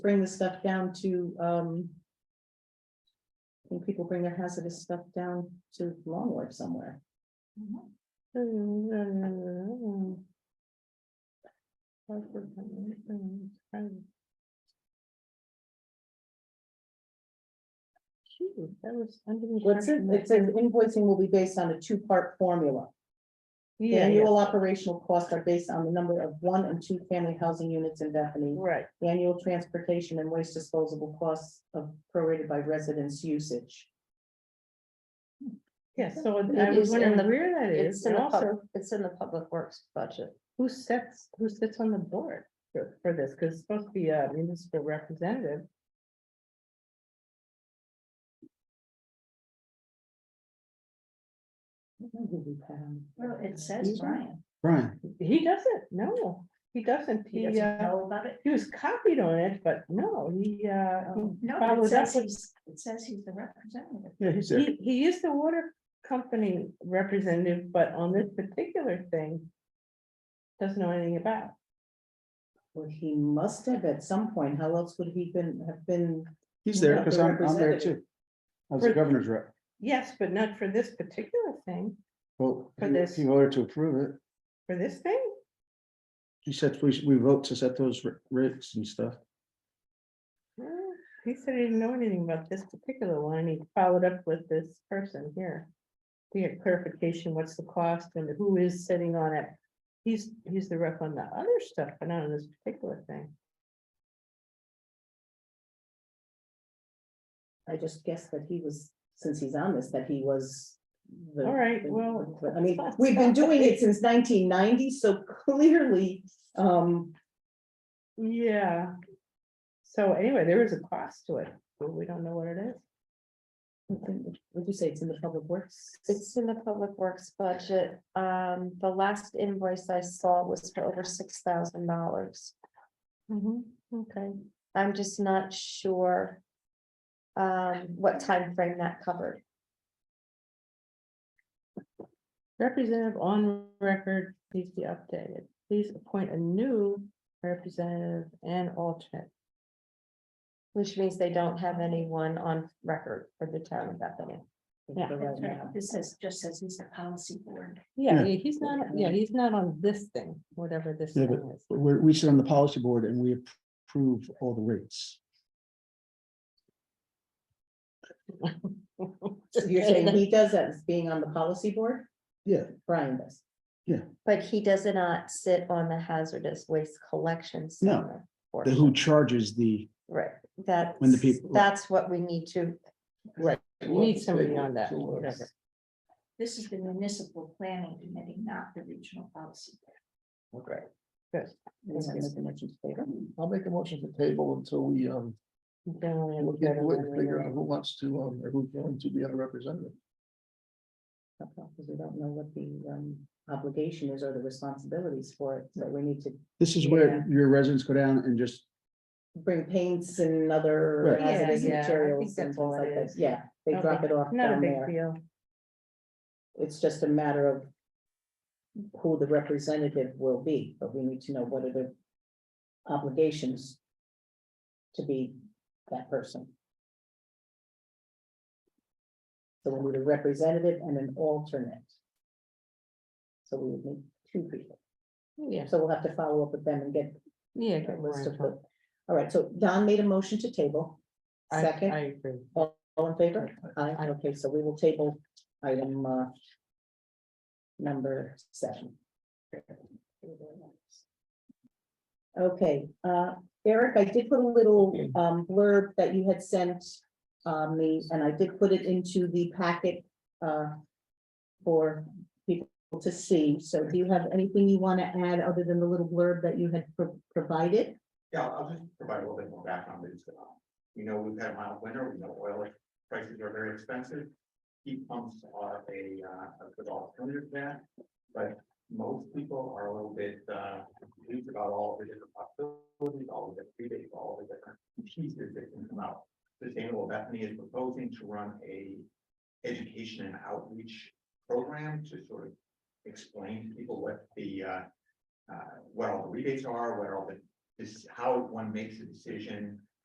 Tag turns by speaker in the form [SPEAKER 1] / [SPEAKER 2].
[SPEAKER 1] bring the stuff down to, um. When people bring their hazardous stuff down to Longwood somewhere. Shoot, that was under. What's it, it says invoicing will be based on a two-part formula. The Annual operational costs are based on the number of one and two family housing units in Bethany.
[SPEAKER 2] Right,
[SPEAKER 1] The Annual transportation and waste disposable costs of prorated by residence usage.
[SPEAKER 2] yeah, so I
[SPEAKER 3] It
[SPEAKER 2] was
[SPEAKER 3] is in
[SPEAKER 2] wondering
[SPEAKER 3] the-
[SPEAKER 2] where that is,
[SPEAKER 3] It's in
[SPEAKER 2] and
[SPEAKER 3] the, pub-
[SPEAKER 2] also,
[SPEAKER 3] it's in the public works budget.
[SPEAKER 2] who sets, who sits on the board for, for this, because it's supposed to be a municipal representative.
[SPEAKER 1] I don't know who we put on.
[SPEAKER 3] it says Brian.
[SPEAKER 4] Brian,
[SPEAKER 2] He doesn't, no, he doesn't, he, uh,
[SPEAKER 3] about it?
[SPEAKER 2] he was copied on it, but no, he, uh, he
[SPEAKER 3] No,
[SPEAKER 2] Follow it says up.
[SPEAKER 3] he's, it says he's the representative.
[SPEAKER 4] yeah, he's there.
[SPEAKER 2] He, he is the water company representative, but on this particular thing. Doesn't know anything about.
[SPEAKER 1] Well, he must have at some point. How else would he been, have been?
[SPEAKER 4] He's there because I'm, I'm there
[SPEAKER 1] Representative.
[SPEAKER 4] too. I was the governor's rep.
[SPEAKER 2] Yes, but not for this particular thing,
[SPEAKER 4] Well,
[SPEAKER 2] For
[SPEAKER 4] he-
[SPEAKER 2] this.
[SPEAKER 4] he voted to approve it.
[SPEAKER 2] for this thing.
[SPEAKER 4] He said, we, should- we vote to set those ra- rates and stuff.
[SPEAKER 2] Uh, He said he didn't know anything about this particular one, and he followed up with this person here. To get clarification, what's the cost and who is sitting on it? He's, he's the rep on the other stuff, but not on this particular thing.
[SPEAKER 1] I just guessed that he was, since he's on this, that he was. the-
[SPEAKER 2] All right,
[SPEAKER 1] the-
[SPEAKER 2] well,
[SPEAKER 1] I mean, we've been doing it since nineteen ninety, so clearly, um,
[SPEAKER 2] Yeah. So anyway, there is a cost to it, but we don't know what it is.
[SPEAKER 1] would you say it's in the public works?
[SPEAKER 3] It's in the public works budget. Um, the last invoice I saw was for over six thousand dollars. Mm-hmm,
[SPEAKER 2] okay.
[SPEAKER 3] I'm just not sure. Um, what timeframe that covered.
[SPEAKER 2] Representative on record needs to be updated. Please appoint a new representative and alternate.
[SPEAKER 3] Which means they don't have anyone on record for the town of Bethany.
[SPEAKER 2] Yeah,
[SPEAKER 3] This says, just says he's the policy board.
[SPEAKER 2] Yeah,
[SPEAKER 4] Yeah.
[SPEAKER 2] yeah, he's not, yeah, he's not on this thing, whatever this
[SPEAKER 4] Yeah,
[SPEAKER 2] thing is.
[SPEAKER 4] But We're, we sit on the policy board and we approve all the rates.
[SPEAKER 1] So You're saying he does that as being on the policy board?
[SPEAKER 4] Yeah.
[SPEAKER 1] Brian does.
[SPEAKER 3] But he does not sit on the hazardous waste collection. center
[SPEAKER 4] The
[SPEAKER 3] portion.
[SPEAKER 4] who charges the,
[SPEAKER 3] Right, that.
[SPEAKER 4] When the people-
[SPEAKER 3] That's what we need to,
[SPEAKER 2] You need somebody on that, whatever.
[SPEAKER 5] This is the municipal planning committee, not the regional policy.
[SPEAKER 2] Right. Good.
[SPEAKER 6] I'll make a motion to table until we, um,
[SPEAKER 2] Then we have
[SPEAKER 6] look
[SPEAKER 2] better
[SPEAKER 6] into it
[SPEAKER 2] one
[SPEAKER 6] and figure
[SPEAKER 2] later.
[SPEAKER 6] out who wants to, um, or who's going to be our representative.
[SPEAKER 1] Because we don't know what the um obligation is or the responsibilities for it, so we need to
[SPEAKER 4] this is where your residents go down and just,
[SPEAKER 1] bring paints and other
[SPEAKER 4] Right.
[SPEAKER 2] Yeah,
[SPEAKER 1] hazardous
[SPEAKER 2] yeah, I think
[SPEAKER 1] materials and
[SPEAKER 2] that's
[SPEAKER 1] things
[SPEAKER 2] all
[SPEAKER 1] like
[SPEAKER 2] it
[SPEAKER 1] that,
[SPEAKER 2] is.
[SPEAKER 1] yeah, they
[SPEAKER 2] Not a
[SPEAKER 1] drop
[SPEAKER 2] big-
[SPEAKER 1] it off
[SPEAKER 2] Not a
[SPEAKER 1] down
[SPEAKER 2] big
[SPEAKER 1] there,
[SPEAKER 2] deal.
[SPEAKER 1] it's just a matter of. Who the representative will be, but we need to know what are the obligations. To be that person. So we need a representative and an alternate. So we would need two people,
[SPEAKER 2] Yeah,
[SPEAKER 1] so we'll have to follow up with them and get
[SPEAKER 2] yeah.
[SPEAKER 1] a
[SPEAKER 2] get more
[SPEAKER 1] list of
[SPEAKER 2] info.
[SPEAKER 1] what. All right, so Don made a motion to table.
[SPEAKER 2] I- I
[SPEAKER 1] Second,
[SPEAKER 2] agree.
[SPEAKER 1] all in favor? Aye, okay, so we will table item uh. Number seven. Okay, uh, Eric, I did put a little um blurb that you had sent um me, and I did put it into the packet uh. For people to see, so do you have anything you want to add other than the little blurb that you had pro- provided?
[SPEAKER 7] Yeah, I'll I'll just provide a little bit more background. is, uh, You know, we've had a mild winter, we know oil prices are very expensive. Heat pumps are a, uh, a good alternative to that, but most people are a little bit, uh, confused about all the different possibilities, all the different rebates, all the different pieces that can come out. Sustainable Bethany is proposing to run a education and outreach program to sort of explain to people what the, uh, uh, what all the rebates are, what all the this, how one makes a decision